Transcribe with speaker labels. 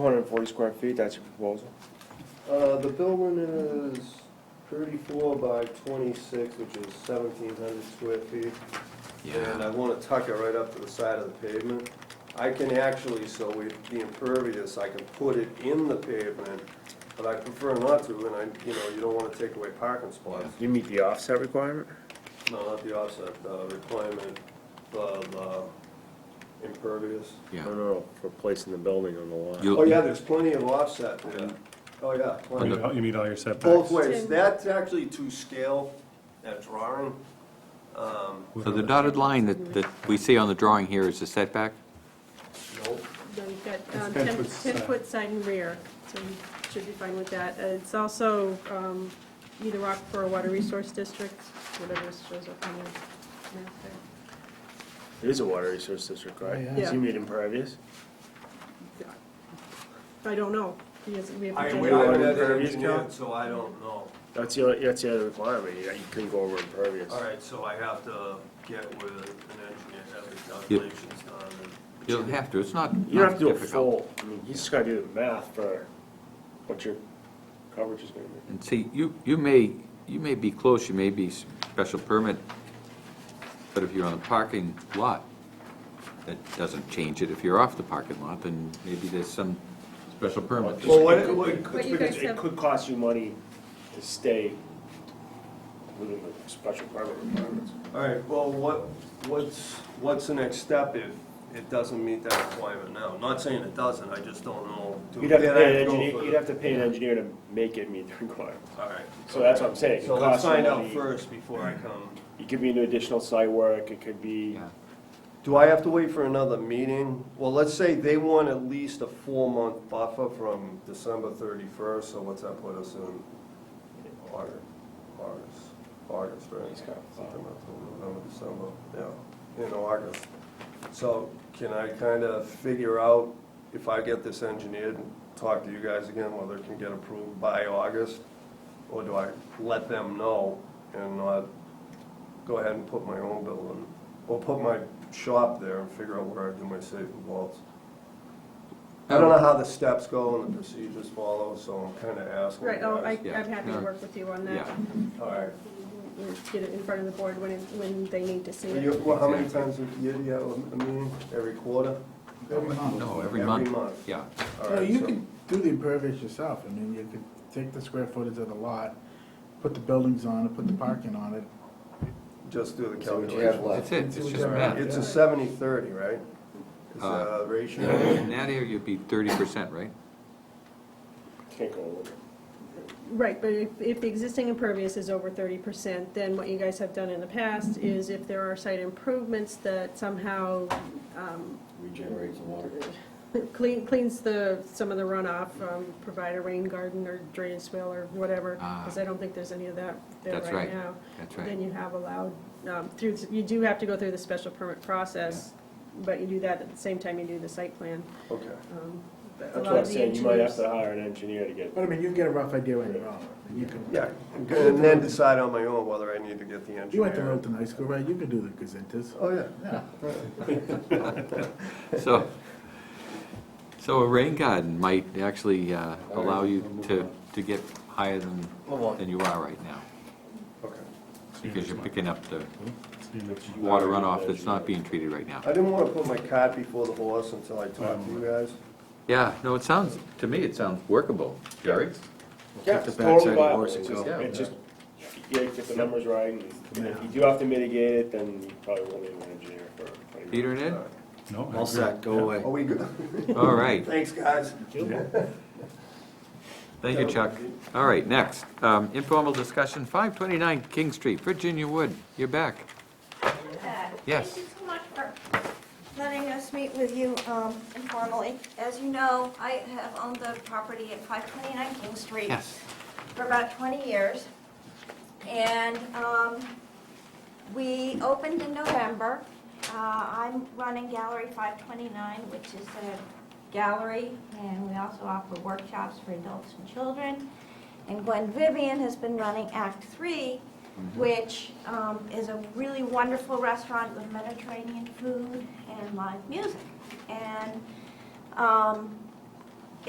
Speaker 1: 240 square feet, that's your proposal?
Speaker 2: Uh, the building is thirty-four by twenty-six, which is seventeen hundred square feet. And I wanna tuck it right up to the side of the pavement. I can actually, so we'd be impervious, I can put it in the pavement, but I prefer not to, and I, you know, you don't wanna take away parking spots.
Speaker 1: You meet the offset requirement?
Speaker 2: No, not the offset, uh, requirement of, uh, impervious.
Speaker 1: No,
Speaker 3: Yeah.
Speaker 1: no, no, for placing the building on the lot.
Speaker 3: You'll-
Speaker 2: Oh, yeah, there's plenty of offset there. Oh, yeah, plenty.
Speaker 4: You you meet all your setbacks.
Speaker 2: Both ways, that's actually to scale, that drawing. Um,
Speaker 3: So the dotted line that, that we see on the drawing here is the setback?
Speaker 2: nope.
Speaker 5: No, you've got um,
Speaker 4: It's 10 foot side.
Speaker 5: 10-foot side and rear, so you should be fine with that. Uh, It's also um, either Rockport or Water Resource District, whatever shows up on the map there.
Speaker 1: It is a water resource district, right?
Speaker 5: Yeah.
Speaker 1: So you meet impervious?
Speaker 5: I don't know, because we
Speaker 2: I, I
Speaker 5: haven't
Speaker 1: we
Speaker 5: done
Speaker 1: are-
Speaker 5: it.
Speaker 1: want
Speaker 2: haven't had it
Speaker 1: impervious
Speaker 2: engineered,
Speaker 1: count?
Speaker 2: so I don't know.
Speaker 1: That's the, only- that's the other requirement, you you couldn't go over impervious.
Speaker 2: All right, so I have to get with an engineer, have the calculations done. and-
Speaker 3: You'll have to, it's not
Speaker 1: You don't have to do a full,
Speaker 3: difficult.
Speaker 1: I mean, you just gotta do the math for what your coverage is gonna be.
Speaker 3: And see, you, you may, you may be close, you may be special permit, but if you're on the parking lot, that doesn't change it. If you're off the parking lot, then maybe there's some special permit.
Speaker 2: Well, what, what,
Speaker 5: But you guys
Speaker 1: It
Speaker 5: have-
Speaker 1: could cost you money to stay within the special permit requirements.
Speaker 2: all right, well, what, what's, what's the next step if it doesn't meet that requirement now? I'm Not saying it doesn't, I just don't know. Do-
Speaker 1: You'd have to
Speaker 2: then I
Speaker 1: pay an
Speaker 2: go
Speaker 1: engineer,
Speaker 2: for
Speaker 1: you'd
Speaker 2: the-
Speaker 1: have to pay an engineer to make it meet the requirement.
Speaker 2: All right.
Speaker 1: So that's what I'm saying. It
Speaker 2: So let's
Speaker 1: costs you
Speaker 2: find out
Speaker 1: money.
Speaker 2: first before I come.
Speaker 1: It could be new additional site work, it could be,
Speaker 3: Yeah.
Speaker 2: Do I have to wait for another meeting? Well, let's say they want at least a four-month buffer from December thirty-first, so what's that put us in? August, August, August, right?
Speaker 1: It's kind of-
Speaker 2: September, October, November, December, yeah, in August. So can I kind of figure out if I get this engineered, and talk to you guys again, whether it can get approved by August? Or do I let them know and not go ahead and put my own building, or put my shop there and figure out where I do my safe and vaults. I don't know how the steps go and the procedures follow, so I'm kind of asking.
Speaker 5: Right, oh, I-
Speaker 2: you guys.
Speaker 5: I'm happy to
Speaker 3: Yeah.
Speaker 5: work with you on that.
Speaker 3: Yeah.
Speaker 2: All right.
Speaker 5: We'll Get it in front of the board when, it- when they need to see
Speaker 2: Well, you-
Speaker 5: it.
Speaker 2: well, how many times a year do you have a meeting? Every quarter?
Speaker 6: Every month.
Speaker 3: No, every
Speaker 2: Every
Speaker 3: month.
Speaker 2: month.
Speaker 3: Yeah.
Speaker 2: All
Speaker 6: No,
Speaker 2: right,
Speaker 6: you
Speaker 2: so-
Speaker 6: can do the impervious yourself, I mean, you could take the square footage of the lot, put the buildings on it, put the parking on it.
Speaker 2: Just do the
Speaker 7: So what do you have
Speaker 2: calculation.
Speaker 7: left?
Speaker 3: That's it, it's
Speaker 6: It's
Speaker 3: just
Speaker 6: a-
Speaker 3: math.
Speaker 2: It's a seventy-thirty, right? It's
Speaker 3: Uh,
Speaker 2: a
Speaker 3: Yeah,
Speaker 2: ratio.
Speaker 3: In that area, you'd be thirty percent, right?
Speaker 1: can't go over.
Speaker 5: Right, but if, if the existing impervious is over thirty percent, then what you guys have done in the past is if there are site improvements that somehow um,
Speaker 7: Regenerate some water.
Speaker 5: Clean, cleans the, some of the runoff, um, provide a rain garden or drainage swale or whatever,
Speaker 3: Ah.
Speaker 5: because I don't think there's any of that there
Speaker 3: That's
Speaker 5: right
Speaker 3: right.
Speaker 5: now.
Speaker 3: That's
Speaker 5: Then
Speaker 3: right.
Speaker 5: you have allowed, um, through, you do have to go through the special permit process, but you do that at the same time you do the site plan.
Speaker 2: Okay.
Speaker 5: Um, but a
Speaker 1: That's
Speaker 5: lot
Speaker 1: what I'm
Speaker 5: of the
Speaker 1: saying, you might have
Speaker 5: engineers-
Speaker 1: to hire an engineer to get,
Speaker 6: But I mean, you can get a rough idea when you're on it, and you can.
Speaker 2: Yeah, and then decide on my own whether I need to get the engineer.
Speaker 6: You went to Littleton High School, right, you could do the gazetas.
Speaker 2: Oh, yeah.
Speaker 6: Yeah.
Speaker 3: So, so a rain garden might actually uh, allow you to, to get higher than, than you are right now,
Speaker 2: Okay.
Speaker 3: because you're picking up the
Speaker 4: See you next month.
Speaker 3: water runoff that's not being treated right now.
Speaker 2: I didn't want to put my cart before the horse until I talked to you guys.
Speaker 3: Yeah, no, it sounds, to me, it sounds workable, Jerry.
Speaker 1: yeah,
Speaker 7: the backside
Speaker 1: it's
Speaker 7: of
Speaker 1: totally
Speaker 7: the
Speaker 1: viable,
Speaker 7: horse
Speaker 1: it's
Speaker 7: and
Speaker 1: just,
Speaker 3: go.
Speaker 1: it's just, you gotta get the numbers right, and and if you do have to mitigate it, then you probably will need an engineer for.
Speaker 3: Peter and Ed?
Speaker 4: No, I
Speaker 7: All
Speaker 4: agree.
Speaker 7: set, go away.
Speaker 2: Are we good?
Speaker 3: All right,
Speaker 2: Thanks, guys.
Speaker 3: thank you, Chuck. All right, next, um, informal discussion, 529 King Street, Virginia Wood, you're back. Yes.
Speaker 8: Thank you so much for letting us meet with you um, informally. As you know, I have owned the property at 529 King Street
Speaker 3: Yes.
Speaker 8: for about 20 years. And um, we opened in November. Uh, I'm running Gallery 529, which is a gallery, and we also offer workshops for adults and children. And Gwen Vivian has been running Act Three, which um, is a really wonderful restaurant with Mediterranean food and live music. And um,